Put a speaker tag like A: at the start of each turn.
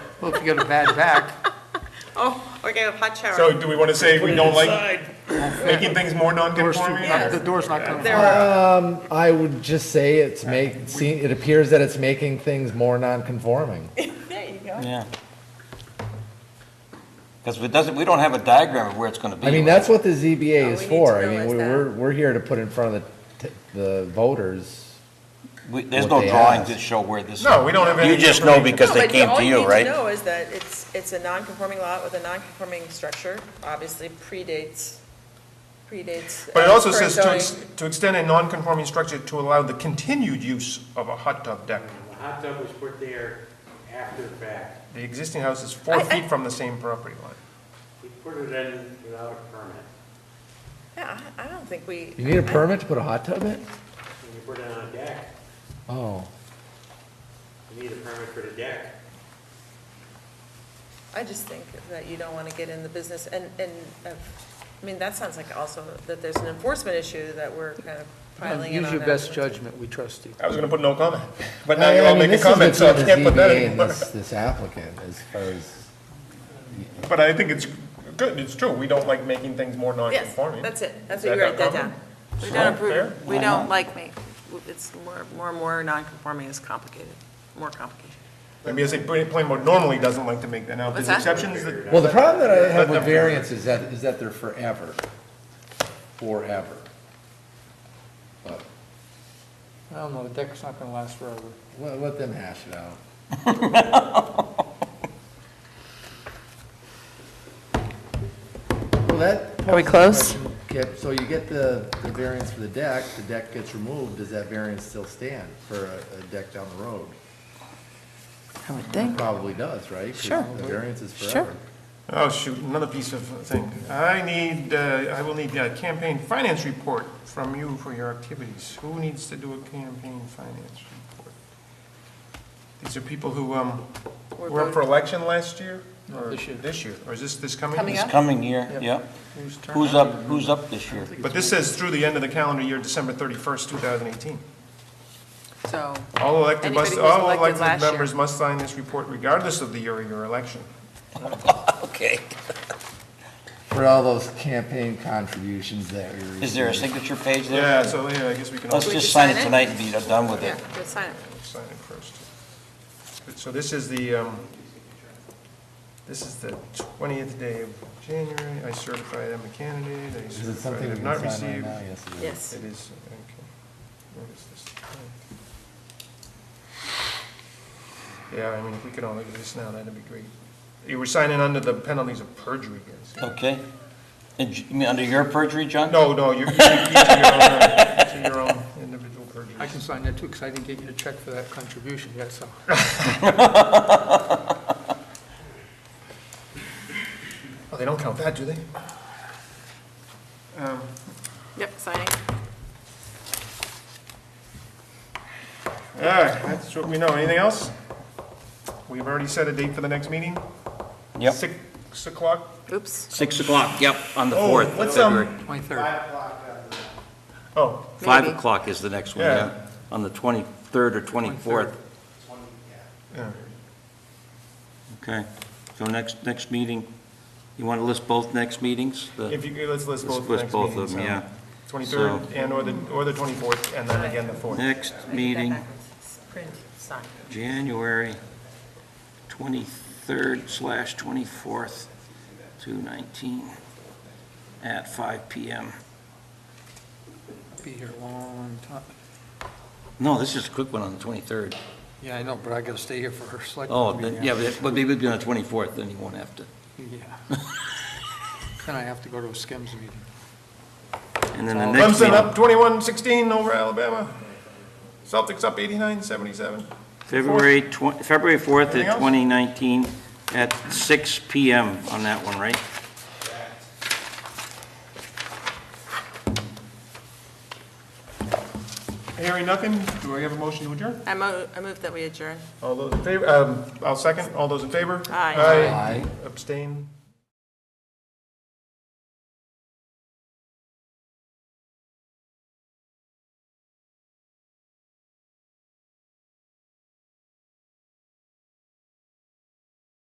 A: Well, if you got a bad back,
B: Oh, we're gonna have a hot shower.
C: So do we want to say we don't like making things more
A: door's too-
C: non-conforming?
A: not- the door's not going
B: There
A: to,
B: are,
D: Um, I would just say it's make, see, it appears that it's making things more non-conforming.
B: there you go.
E: Yeah. Because it doesn't, we don't have a diagram of where it's gonna be.
D: I mean, that's what the ZBA
B: No,
D: is
B: we need
D: for.
B: to
D: I mean,
B: realize
D: we-
B: that.
D: we're, we're here to put in front of the, t- the voters.
E: We- There's
D: what
E: no
D: they
E: drawings
D: asked.
E: that show where this.
C: No, we don't have any
E: You just know
C: information.
E: because
B: No,
E: they
B: but
E: came
B: all
E: to you,
B: need to
E: right?
B: know is that it's, it's a non-conforming lot with a non-conforming structure, obviously predates, predates.
C: But it
B: uh,
C: also
B: current
C: says to, ex-
B: zoning.
C: to extend a non-conforming structure to allow the continued use of a hot tub deck.
F: The hot tub was put there after the fact.
C: The existing house is four
B: I- I-
C: feet from the same property line.
F: We put it in without a permit.
B: Yeah, I I don't think we.
D: You need a permit to put a hot tub in?
F: When you put it on a deck,
D: Oh,
F: you need a permit for the deck.
B: I just think that you don't want to get in the business and, and, of- I mean, that sounds like also that there's an enforcement issue that we're kind of piling in
A: use
B: on.
A: your
B: that.
A: best judgment, we trust you.
C: I was going to put no comment, but now
D: I
C: you're
D: I
C: all
D: mean,
C: making
D: this is between
C: comments, so I
D: the
C: can't put that
D: ZBA and
C: anymore.
D: this, this applicant as far as,
C: But I think it's good, it's true, we don't like making things more
B: Yes,
C: non-conforming.
B: that's it. That's
C: Is
B: what you
C: that
B: write that
C: not
B: down.
C: common?
B: We
C: Is
B: don't
C: that fair?
B: approve, we don't like me. It's more, more and more non-conforming is complicated, more complicated.
C: Maybe I say, pla- plain board normally doesn't like to make that, now if
B: What's
C: there's
B: that?
C: exceptions that.
D: well, the problem that I have
C: But
D: with
C: the-
D: variance is that, is that they're forever. Forever. But,
A: I don't know, the deck's not going to last forever.
D: let, let them hash it out. Well, that.
B: Are we close?
D: Okay, so you get the, the variance for the deck, the deck gets removed, does that variance still stand for a, a deck down the road?
B: I would
D: It Probably does, right? 'Cause
B: Sure.
D: The variance is
B: Sure.
D: forever.
C: Oh, shoot, another piece of thing. I need, uh, I will need a campaign finance report from you for your activities. Who needs to do a campaign finance report? These are people who um, were up for election last year? or
A: this year.
C: This year, or is this, this coming?
B: Coming
E: It's
B: up.
E: coming year,
A: Yep.
E: yeah.
C: Whose turn?
E: Who's up, who's up this year?
C: But this says through the end of the calendar year, December 31st, 2018.
B: So,
C: All elected, must-
B: Anybody who's
C: all
B: elected
C: elected
B: last year.
C: members must sign this report regardless of the year of your election.
E: Okay.
D: For all those campaign contributions that we
E: Is there a
D: received.
E: signature page there?
C: Yeah, so, yeah, I guess we can all
E: Let's
B: We
E: just
B: just
E: sign
B: sign
E: it
B: it?
E: tonight and be done with
B: yeah,
E: it.
B: just sign it.
C: sign it first. Good, So this is the, um, this is the 20th day of January. I certify them a candidate. I
D: Is it
C: certify
D: something
C: they
D: we
C: have not
D: can sign
C: received.
D: right now? Yes, it is.
B: Yes.
C: It is, okay. Where is this? Yeah, I mean, if we could all look at this now, that'd be great. You were signing under the penalties of perjury, guys.
E: Okay? And j- you mean under your perjury, John?
C: No, no, you're, you're to your own individual perjury.
A: I can sign that too, because I didn't get you to check for that contribution yet, so.
C: Oh, they don't count that, do they? Um,
B: Yep, signing.
C: All right, that's what we know. Anything else? We've already set a date for the next meeting?
E: Yep.
C: Six- Six o'clock?
B: Oops.
E: Six o'clock, yep, on the
C: Oh,
E: fourth of
C: what's, um,
E: February.
A: 23rd.
C: Oh,
E: Five
B: Maybe.
E: o'clock is the next one,
C: Yeah.
E: yeah, on the twenty-third or twenty-fourth.
C: yeah.
E: Okay, so next, next meeting, you want to list both next meetings? The-
C: if you, could, let's list
E: Let's
C: both the
E: list
C: next
E: both of
C: meetings. um,
E: them, yeah.
C: Twenty-third and or the, or the twenty-fourth, and then again the fourth.
E: Next
B: I did that
E: meeting,
B: backwards. Print, sign.
E: January twenty-third slash twenty-fourth, two nineteen, at five PM.
A: Be here a long time.
E: No, this is a quick one on the twenty-third.
A: Yeah, I know, but I got to stay here for her select.
E: Oh,
A: meeting.
E: then- yeah, but it- but maybe it'll be on the twenty-fourth, then you won't have to.
A: Yeah. Then I have to go to a Skims meeting.
E: And then the next
C: Clemson
E: meeting,
C: up twenty-one sixteen over Alabama. Celtics up eighty-nine seventy-seven.
E: February twen, February fourth
C: Anything
E: of
C: else?
E: twenty nineteen, at six PM on that one, right?
C: Hearing nothing, do I have a motion to adjourn?
B: I mo, I move that we adjourn.
C: All those in favor, um, I'll second. All those in favor?
B: Aye.
C: Aye.
D: Aye.
C: Abstain?